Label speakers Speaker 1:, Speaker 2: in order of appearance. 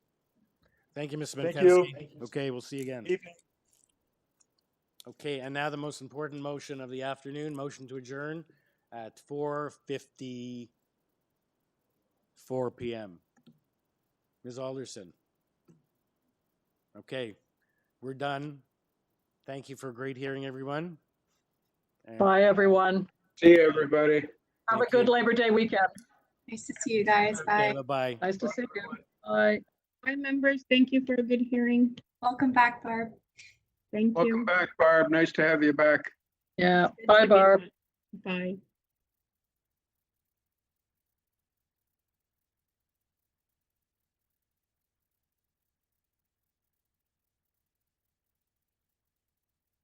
Speaker 1: Thank you, Ms.
Speaker 2: Thank
Speaker 1: Benkowski.
Speaker 2: you.
Speaker 1: Okay, we'll see you again.
Speaker 2: Evening.
Speaker 1: Okay, and now the most important motion of the afternoon, motion to adjourn at four fifty-four PM. Ms. Alderson. Okay, we're done. Thank you for a great hearing, everyone. And
Speaker 3: Bye, everyone.
Speaker 4: See you, everybody.
Speaker 3: Have a
Speaker 1: Thank
Speaker 3: good
Speaker 1: you.
Speaker 3: Labor Day weekend.
Speaker 5: Nice to see you guys.
Speaker 1: Okay,
Speaker 5: Bye.
Speaker 1: bye-bye.
Speaker 3: Nice to see you. Bye.
Speaker 6: Hi, members. Thank you for a good hearing.
Speaker 5: Welcome back, Barb.
Speaker 6: Thank
Speaker 4: Welcome
Speaker 6: you.
Speaker 4: back, Barb. Nice to have you back.
Speaker 3: Yeah, bye, Barb.
Speaker 6: Bye.